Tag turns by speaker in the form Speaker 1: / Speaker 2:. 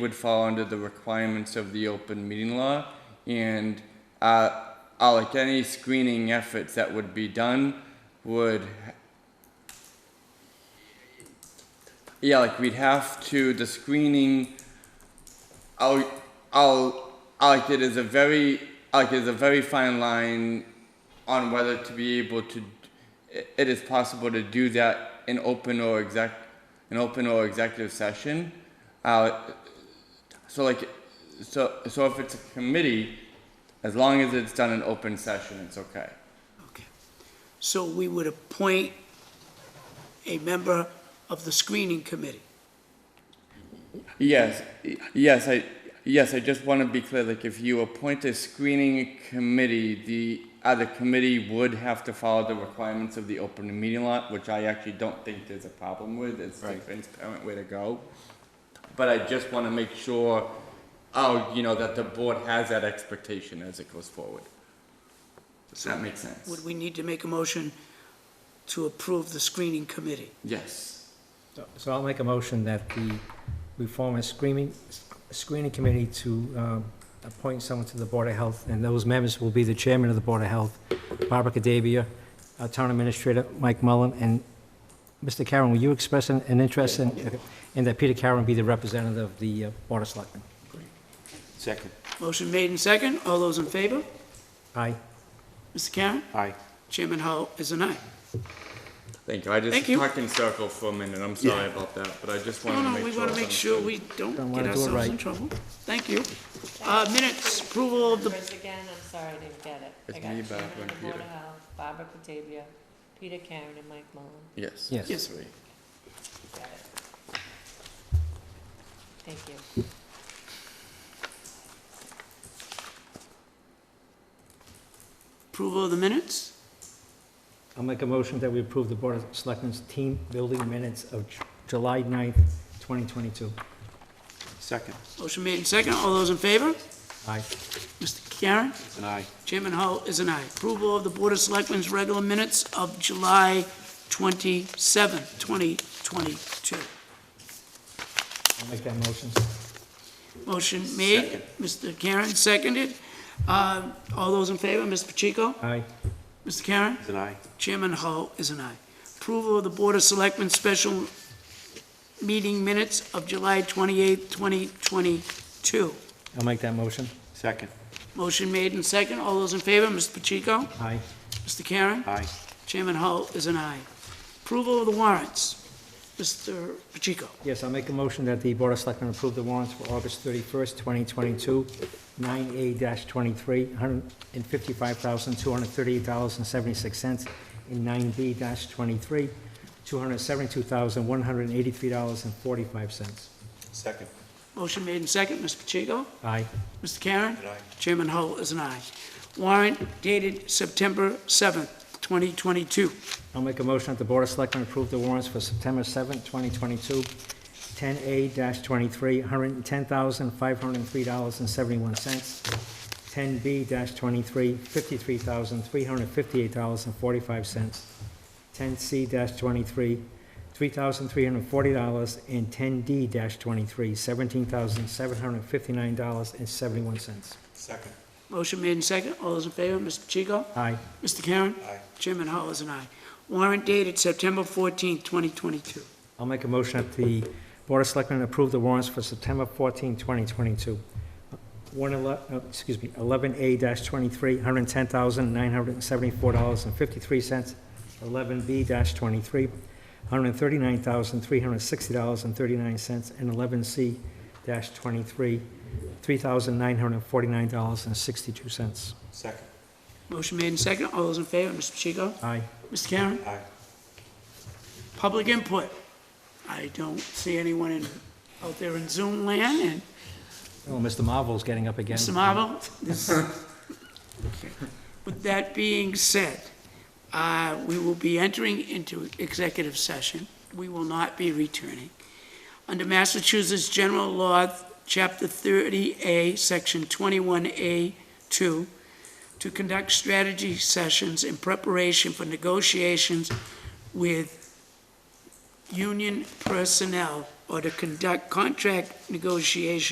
Speaker 1: would fall under the requirements of the open meeting law and uh, uh, like any screening efforts that would be done would yeah like we'd have to the screening I'll, I'll, I like it is a very, I like it is a very fine line on whether to be able to, it- it is possible to do that in open or exec, an open or executive session. Uh, so like, so, so if it's a committee, as long as it's done in open session, it's okay.
Speaker 2: Okay. So we would appoint a member of the screening committee.
Speaker 1: Yes, y- yes, I, yes, I just want to be clear, like, if you appoint a screening committee, the other committee would have to follow the requirements of the open meeting law, which I actually don't think there's a problem with, it's the transparent way to go. But I just want to make sure, oh, you know, that the board has that expectation as it goes forward. Does that make sense?
Speaker 2: Would we need to make a motion to approve the screening committee?
Speaker 1: Yes,
Speaker 3: So- So I'll make a motion that the, we form a screening, screening committee to um, appoint someone to the Board of Health, and those members will be the chairman of the Board of Health, Barbara Cadavia, our town administrator, Mike Mullen, and Mr. Karen, will you express an, an interest in, in that Peter Karen be the representative of the uh, Board of Selectmen?
Speaker 4: Second.
Speaker 2: Motion made and second. All those in favor?
Speaker 3: Aye?
Speaker 2: Mr. Karen?
Speaker 4: Aye.
Speaker 2: Chairman Hull is an aye.
Speaker 1: thank you, I just
Speaker 2: Thank you.
Speaker 1: talked in circle for a minute, I'm sorry about that, but I just
Speaker 2: No,
Speaker 1: wanted to
Speaker 2: no,
Speaker 1: make
Speaker 2: we
Speaker 1: sure.
Speaker 2: want to make sure we don't
Speaker 3: Don't
Speaker 2: get
Speaker 3: wanna do it
Speaker 2: ourselves in
Speaker 3: right.
Speaker 2: trouble. Thank you. Uh, Minutes, approval of the,
Speaker 5: Numbers again, I'm sorry, I didn't get it.
Speaker 1: It's
Speaker 5: I got
Speaker 1: me,
Speaker 5: Chairman
Speaker 1: Barbara,
Speaker 5: of the Board
Speaker 1: Peter.
Speaker 5: of Health, Barbara Patavia, Peter Karen, and Mike Mullin.
Speaker 1: Yes.
Speaker 3: Yes.
Speaker 2: Yes.
Speaker 1: Sorry.
Speaker 5: Got it. Thank you.
Speaker 2: approval of the minutes?
Speaker 3: I'll make a motion that we approve the Board of Selectmen's team building minutes of Ju- July 9th, 2022.
Speaker 4: Second.
Speaker 2: Motion made and second. All those in favor?
Speaker 3: Aye.
Speaker 2: Mr. Karen?
Speaker 4: It's an aye.
Speaker 2: Chairman Hull is an aye. Approval of the Board of Selectmen's regular minutes of July 27, 2022.
Speaker 3: I'll make that motion.
Speaker 2: Motion made, Mr. Karen, seconded. Uh, All those in favor, Mr. Pacheco?
Speaker 3: Aye.
Speaker 2: Mr. Karen?
Speaker 4: It's an aye.
Speaker 2: Chairman Hull is an aye. Approval of the Board of Selectmen special meeting minutes of July 28, 2022.
Speaker 3: I'll make that motion.
Speaker 4: Second.
Speaker 2: Motion made and second. All those in favor, Mr. Pacheco?
Speaker 3: Aye.
Speaker 2: Mr. Karen?
Speaker 4: Aye.
Speaker 2: Chairman Hull is an aye. Approval of the warrants. Mr. Pacheco,
Speaker 3: Yes, I'll make a motion that the Board of Selectmen approve the warrants for August 31st, 2022, 9A-23, $155,238.76, and 9B-23, $272,183.45.
Speaker 4: Second.
Speaker 2: motion made and second. Mr. Pacheco?
Speaker 3: Aye.
Speaker 2: Mr. Karen?
Speaker 4: Aye.
Speaker 2: Chairman Hull is an aye. Warrant dated September 7th, 2022.
Speaker 3: I'll make a motion that the Board of Selectmen approve the warrants for September 7th, 2022, 10A-23, $110,503.71, 10B-23, $53,358.45, 10C-23, $3,340, and 10D-23, $17,759.71.
Speaker 4: Second.
Speaker 2: Motion made and second. All those in favor, Mr. Pacheco?
Speaker 3: Aye.
Speaker 2: Mr. Karen?
Speaker 4: Aye.
Speaker 2: Chairman Hull is an aye. Warrant dated September 14th, 2022.
Speaker 3: I'll make a motion that the Board of Selectmen approve the warrants for September 14, 2022. One ele- uh, excuse me, 11A-23, $110,974.53. 11B-23, $139,360.39. And 11C-23, $3,949.62.
Speaker 4: Second.
Speaker 2: Motion made and second. All those in favor, Mr. Pacheco?
Speaker 3: Aye.
Speaker 2: Mr. Karen?
Speaker 4: Aye.
Speaker 2: Public input. I don't see anyone in, out there in Zoom land, and
Speaker 3: Oh, Mr. Marvel's getting up again.
Speaker 2: Mr. Marvel, this, with that being said, uh, we will be entering into executive session. We will not be returning. Under Massachusetts General Law, Chapter 30A, Section 21A2, to conduct strategy sessions in preparation for negotiations with union personnel or to conduct contract negotiations